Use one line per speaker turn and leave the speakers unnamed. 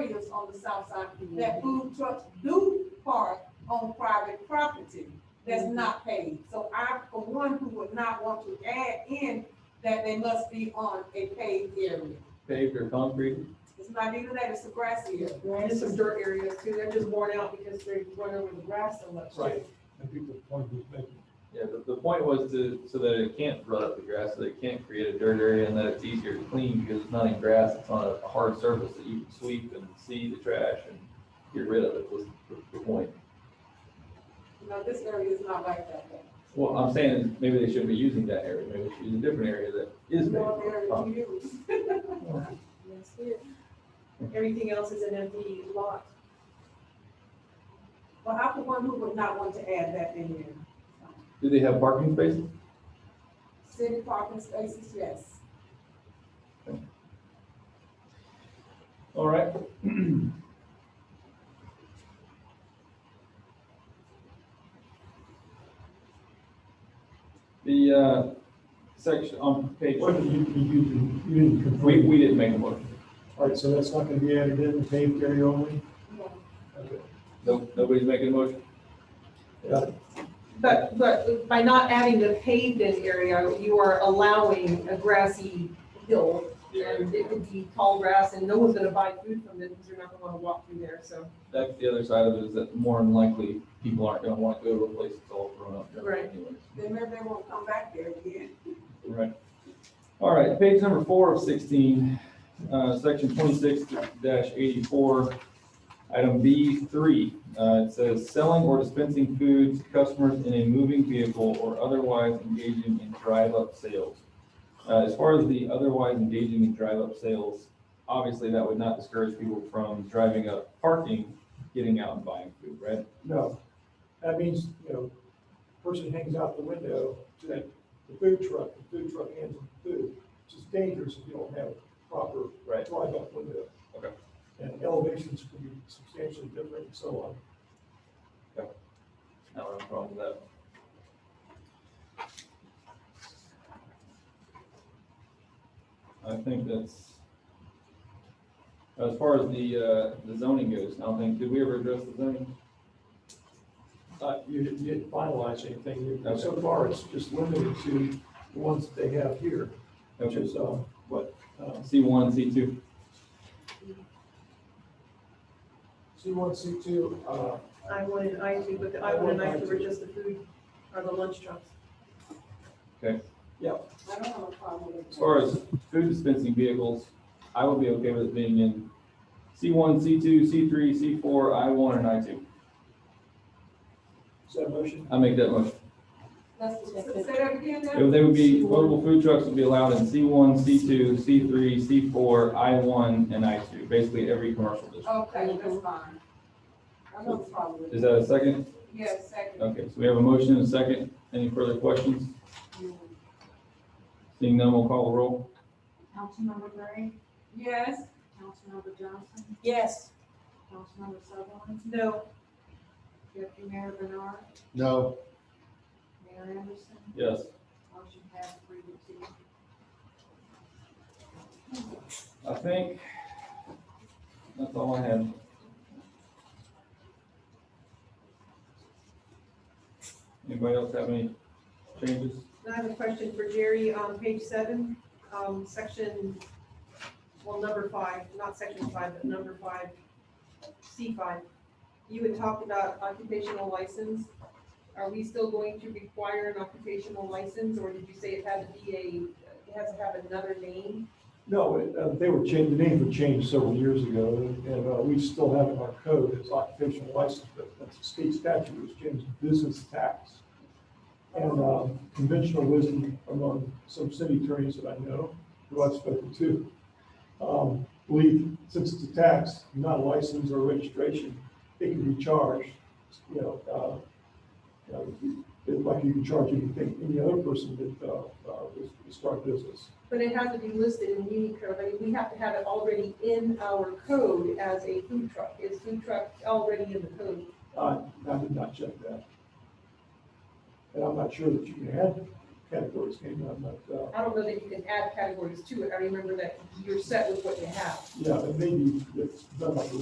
business on the south side, that food trucks do park on private property that's not paid. So I, for one, who would not want to add in that they must be on a paved area.
paved or concrete.
It's not even that, it's a grassy area.
And there's some dirt areas too, they're just worn out because they run over the grass so much.
Right. I think the point was making.
Yeah, the, the point was to, so that it can't rut up the grass, so that it can't create a dirt area and that it's easier to clean because it's not in grass, it's on a hard surface that you can sweep and see the trash and get rid of it was the- the point.
You know, this area is not like that.
Well, I'm saying is maybe they shouldn't be using that area, maybe they should use a different area that is.
North
paved.
area to use.
Yes, yeah. Everything else is an empty lot.
But I, for one, who would not want to add that in there.
Do they have parking spaces?
City parking spaces, yes.
All right. The, uh, section on page,
What did you, you, you- you didn't confirm?
we, we didn't make a motion.
All right, so that's not gonna be added in, the paved area only?
No.
Okay.
No, nobody's making a motion?
Got it.
But, but by not adding the paved in area, you are allowing a grassy hill. And it could be tall grass and no one's gonna buy food from it because you're not gonna wanna walk through there, so.
That's the other side of it, is that more than likely, people aren't gonna want to go to a place that's all grown up.
Right.
anyways.
Then maybe they won't come back there again.
Right. All right, page number four of sixteen, uh, section twenty-six eighty-four, item B three. Uh, it says selling or dispensing food to customers in a moving vehicle or otherwise engaging in drive-up sales. Uh, as far as the otherwise engaging in drive-up sales, obviously that would not discourage people from driving up, parking, getting out and buying food, right?
No, that means, you know, person hangs out the window to the food truck, the food truck hands them food, which is dangerous if you don't have proper
Right.
drive-up window.
Okay.
And elevations can be substantially different and so on.
I don't have a problem with that. I think that's, as far as the, uh, the zoning goes, I don't think, did we ever address the zoning?
Uh, you didn't, you didn't finalize anything, You-
Okay.
so far it's just limited to the ones that they have here, which is, uh, what, uh,
C one, C two,
C one, C two, uh,
I one and I two, but the I one and I two are just the food, or the lunch trucks.
I don't have a problem with
as
that.
far as food dispensing vehicles, I would be okay with it being in C one, C two, C three, C four, I one, and I two.
is that a motion?
I make that motion.
Let's, say that again now.
They would be, mobile food trucks would be allowed in C one, C two, C three, C four, I one, and I two, basically every commercial district.
Okay, that's fine. I don't have a problem with it.
Is that a second?
Yes, second.
Okay, so we have a motion and a second. Any further questions? Seeing none, we'll call the roll.
Councilmember Gray,
Yes.
Councilmember Johnson,
Yes.
Councilmember Sutherland,
No.
Deputy Mayor Bernard,
No,
Mayor Anderson,
Yes.
motion passed three to two.
I think that's all I had. Anybody else have any changes?
And I have a question for Jerry on page seven, um, section, well, number five, not section five, but number five, C five. You had talked about occupational license. Are we still going to require an occupational license, or did you say it had to be a, it has to have another name?
No, it, uh, they were changed, the names were changed several years ago, and, and, uh, we still have in our code as occupational license, but that's a state statute, it was changed to business tax. And, um, conventional wisdom among some city attorneys that I know, who I've spoken to, um, believe since it's a tax, not a license or registration, it can be charged, you know, uh, you know, it's like you can charge anything, any other person that, uh, uh, was, was start business.
But it has to be listed in Unicode. I mean, we have to have it already in our code as a food truck. Is food truck already in the code?
I, I did not check that. And I'm not sure that you can add categories, can you? I'm not, uh,
I don't know that you can add categories to it. I remember that you're set with what you have.
yeah, and maybe it's done like